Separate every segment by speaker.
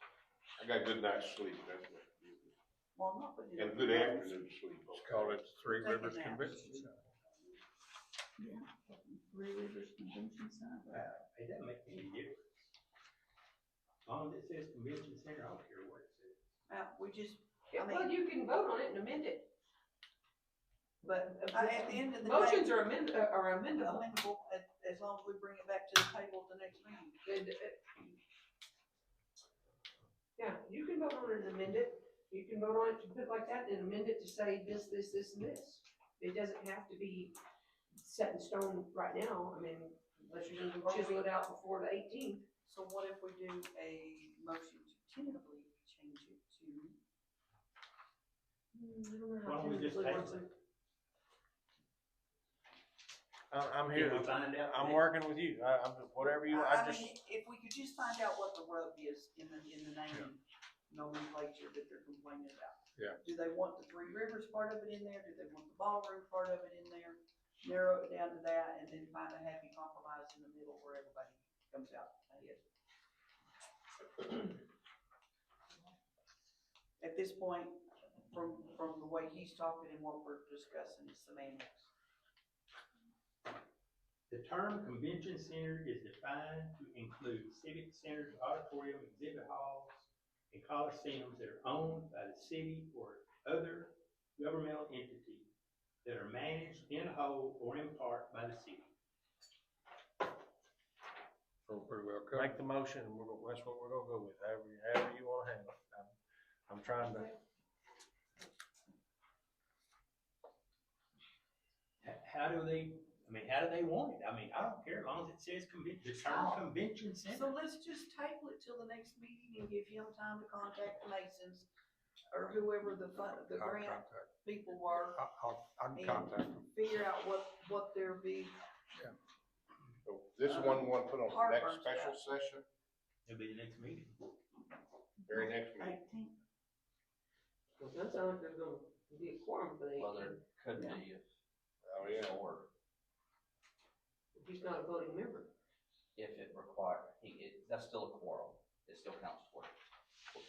Speaker 1: I got good night's sleep, that's what.
Speaker 2: Well, not for you.
Speaker 1: And good afternoon sleep.
Speaker 3: Let's call it Three
Speaker 2: Take a
Speaker 3: Rivers
Speaker 2: nap.
Speaker 3: Convention Center.
Speaker 2: Yeah, Three Rivers Convention Center.
Speaker 4: Wow, It doesn't make any difference. As long as it says convention center, I don't care what it says.
Speaker 2: Uh, we just, I
Speaker 5: Well, you can vote on it and amend it. But
Speaker 2: uh, at the end of the day.
Speaker 5: motions are amend, uh, are amendable.
Speaker 2: amendable, as, as long as we bring it back to the table at the next meeting.
Speaker 5: And, uh, Yeah, you can vote on it and amend it. You can vote on it to put like that and amend it to say this, this, this, and this. It doesn't have to be set in stone right now. I mean, unless you're gonna chisel it out before the eighteenth.
Speaker 2: So what if we do a motion to tentatively change it to,
Speaker 4: Why don't we just table it?
Speaker 6: I'm, I'm here,
Speaker 4: Can we find out?
Speaker 6: I'm working with you, I, I'm, whatever you,
Speaker 2: I,
Speaker 6: I
Speaker 2: I
Speaker 6: just,
Speaker 2: mean, if we could just find out what the rub is in the, in the name nomenclature that they're complaining about.
Speaker 3: Yeah.
Speaker 2: Do they want the Three Rivers part of it in there? Do they want the ballroom part of it in there? Narrow it down to that and then find a happy compromise in the middle where everybody comes out ahead. At this point, from, from the way he's talking and what we're discussing, it's semantics.
Speaker 4: The term convention center is defined to include civic centers, auditorium, exhibit halls, and coliseums that are owned by the city or other governmental entity that are managed in whole or in part by the city.
Speaker 3: So pretty well covered.
Speaker 6: make the motion, and we're, gonna- that's what we're gonna go with, however, you- however you wanna handle it. I'm- I'm trying to,
Speaker 4: H- How do they, I mean, how do they want it? I mean, I don't care as long as it says convention, the term convention
Speaker 2: So
Speaker 4: center.
Speaker 2: let's just table it till the next meeting and give him time to contact the Masons or whoever the fun, the
Speaker 3: I'll
Speaker 2: grant
Speaker 3: contact-
Speaker 2: people were,
Speaker 3: I'll, I'll, I'll
Speaker 2: and
Speaker 3: contact them.
Speaker 2: figure out what, what their big
Speaker 1: So Oh, This one, one put on the next
Speaker 2: Heartburn's
Speaker 1: special session,
Speaker 4: It'll be the next meeting.
Speaker 1: very next meeting.
Speaker 2: eighteenth.
Speaker 5: Well, that's not, there's gonna be a quorum for the
Speaker 7: Well,
Speaker 5: 18th.
Speaker 7: there could
Speaker 2: Yeah.
Speaker 7: be if
Speaker 1: Oh, yeah.
Speaker 7: or
Speaker 5: if he's not a voting member.
Speaker 7: if it required, he, it, that's still a quorum, it still counts for it.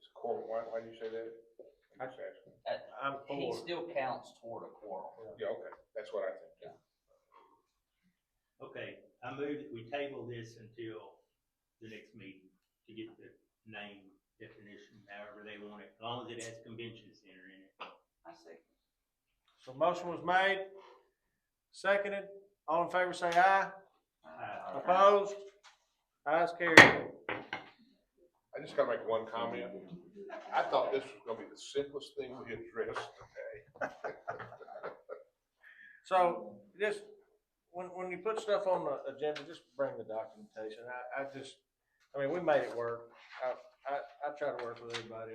Speaker 1: It's a quorum, why, why do you say that? I'm just asking.
Speaker 6: I'm
Speaker 7: He
Speaker 6: for,
Speaker 7: still counts toward a quorum.
Speaker 1: Yeah, okay, that's what I think.
Speaker 4: Okay, I move that we table this until the next meeting to get the name definition, however they want it, as long as it has convention center in it.
Speaker 2: I see.
Speaker 6: so motion was made, seconded, all in favor say aye,
Speaker 4: Uh,
Speaker 6: opposed, ayes carried.
Speaker 1: I just gotta make one comment. I thought this was gonna be the simplest thing we addressed today.
Speaker 6: So just, when, when you put stuff on the agenda, just bring the documentation. I, I just, I mean, we made it work. I, I, I try to work with everybody.